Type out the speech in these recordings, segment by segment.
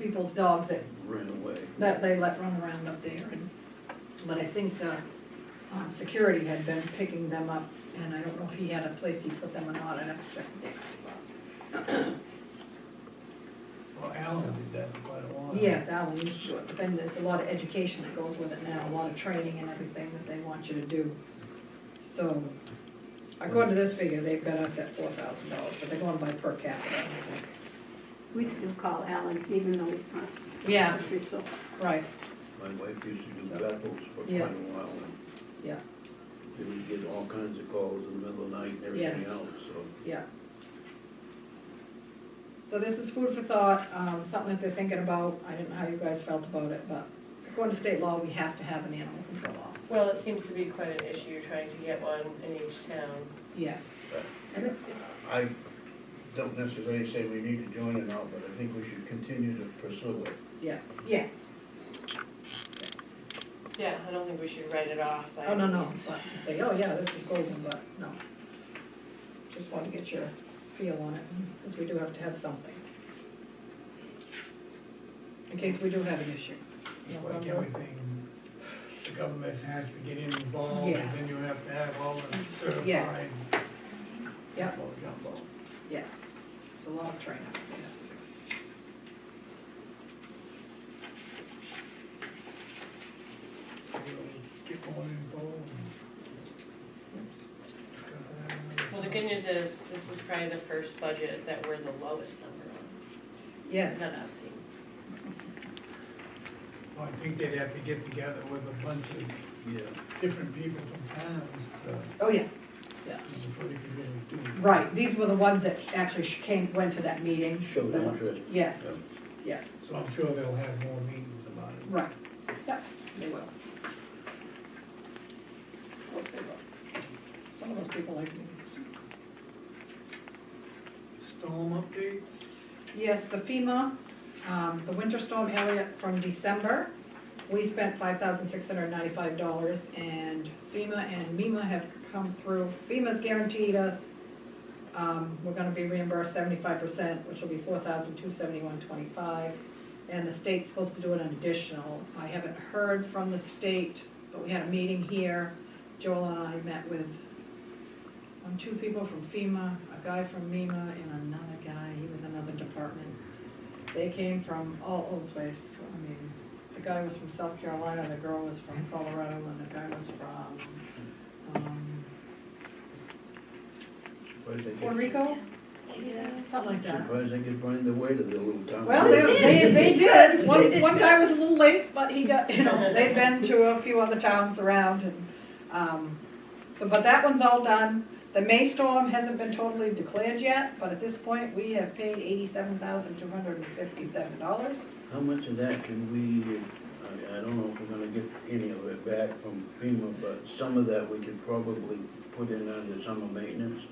people's dog that, ran away. that they let run around up there and, but I think, uh, um, security had been picking them up and I don't know if he had a place he put them or not, I'd have to check the data. Well, Alan did that for quite a while. Yes, Alan used to do it, but then there's a lot of education that goes with it now, a lot of training and everything that they want you to do. So, according to this figure, they've got us at four thousand dollars, but they're going by per capita. I think. We still call Alan, even though it's not Yeah, official. right, My wife used to do So- Bethel's for quite a Yeah. while, and yeah, they would get all kinds of calls in the middle of the night and everything Yes. else, so. yeah. So this is food for thought, um, something that they're thinking about, I didn't know how you guys felt about it, but according to state law, we have to have an animal control officer. Well, it seems to be quite an issue trying to get one in each town. Yes. Right. And it's, I don't necessarily say we need to join it now, but I think we should continue to pursue it. yeah, yes, Yeah, I don't think we should write it off by. oh, no, no, but you say, oh, yeah, this is golden, but no. Just want to get your feel on it, because we do have to have something. In case we do have an issue. It's like everything, the government has to get involved, and then Yes. you have to have all the certified. Yes. Yep. jumbo jumbo. Yes, it's a lot of training. You Get more involved. It's gotta have- Well, the good news is, this is probably the first budget that we're the lowest number Yes, on, that I've seen. Well, I think they'd have to get together with a bunch of Yeah. different people from towns, uh, oh, yeah, just for the people who do. it. right, these were the ones that actually sh- came, went to that meeting. Showed The ones- interest. Yes, yeah, Yeah. So I'm sure they'll have more meetings about it. right, yep, they will. We'll see, though. Some of those people like me. Storm updates? Yes, the FEMA, um, the winter storm Elliott from December, we spent five thousand six hundred ninety-five dollars, and FEMA and MEMA have come through. FEMA's guaranteed us, um, we're gonna be reimbursed seventy-five percent, which will be four thousand two seventy-one twenty-five, and the state's supposed to do an additional. I haven't heard from the state, but we had a meeting here, Joel and I met with um, two people from FEMA, a guy from MEMA and another guy, he was another department. They came from all over the place, I mean, the guy was from South Carolina, the girl was from Colorado, and the guy was from, um, Surprised they Puerto could- Rico, Yeah. something like that. surprised they could find their way to the little town. Well, They they, they, did. they did, They one, did. one guy was a little late, but he got, you know, they've been to a few other towns around and, um, so, but that one's all done. The May storm hasn't been totally declared yet, but at this point, we have paid eighty-seven thousand two hundred and fifty-seven dollars. How much of that can we, I, I don't know if we're gonna get any of it back from FEMA, but some of that we could probably put in under summer maintenance.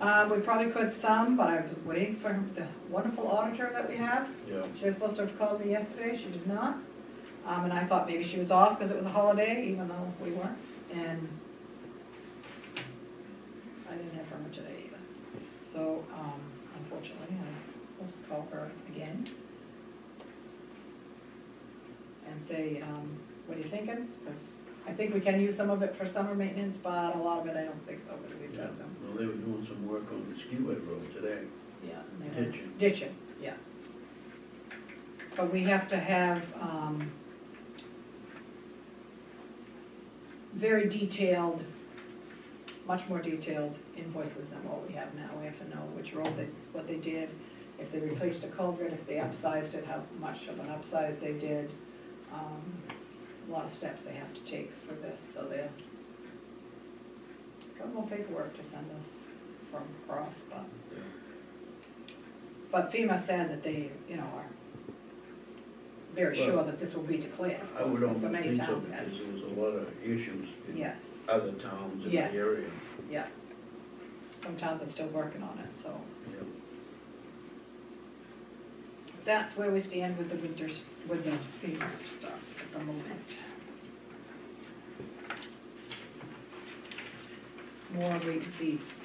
Uh, we probably could some, but I was waiting for the wonderful auditor that we have. Yeah. She was supposed to have called me yesterday, she did not. Um, and I thought maybe she was off because it was a holiday, even though we weren't, and I didn't have her much today either. So, um, unfortunately, I will call her again and say, um, what are you thinking? Because I think we can use some of it for summer maintenance, but a lot of it I don't think so, because we've Yeah, got some, well, they were doing some work on the skiway road today. yeah. and they were- Ditching. Ditching, yeah. But we have to have, um, very detailed, much more detailed invoices than what we have now. We have to know which road they, what they did, if they replaced a culvert, if they upsized it, how much of an upsize they did. Um, A lot of steps they have to take for this, so they have a couple more paperwork to send us from Cross, but but FEMA said that they, you know, are very sure Well, that this will be declared. of I would course, almost so many think so, towns had- because there was a lot of issues in Yes, other towns in the Yes. area. yeah. Some towns are still working on it, so Yeah. that's where we stand with the winters, with the FEMA stuff at the moment. More wait and sees.